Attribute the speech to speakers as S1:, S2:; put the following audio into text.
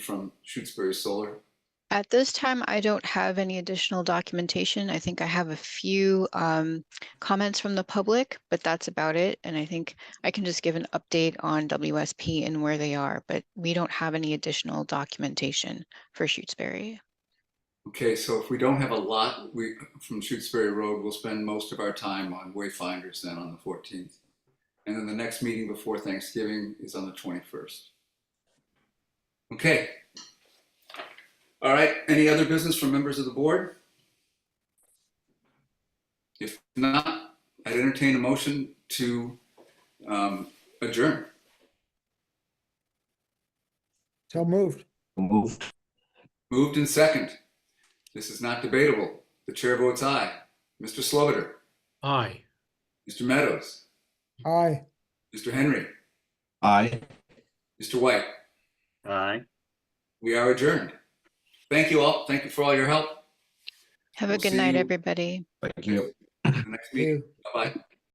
S1: from Shutesbury Solar?
S2: At this time, I don't have any additional documentation. I think I have a few um, comments from the public, but that's about it. And I think I can just give an update on WSP and where they are, but we don't have any additional documentation for Shutesbury.
S1: Okay, so if we don't have a lot, we, from Shutesbury Road, we'll spend most of our time on wayfinders then on the 14th. And then the next meeting before Thanksgiving is on the 21st. Okay. All right, any other business from members of the board? If not, I'd entertain a motion to um, adjourn.
S3: So moved.
S4: Moved.
S1: Moved and second. This is not debatable. The chair votes aye. Mr. Sloviter,
S5: Aye.
S1: Mr. Meadows,
S3: Aye.
S1: Mr. Henry,
S4: Aye.
S1: Mr. White,
S5: Aye.
S1: we are adjourned. Thank you all. Thank you for all your help.
S2: Have a
S1: We'll
S2: good
S1: see
S2: night,
S1: you.
S2: everybody.
S4: Thank you.
S1: The Next meeting. Bye-bye.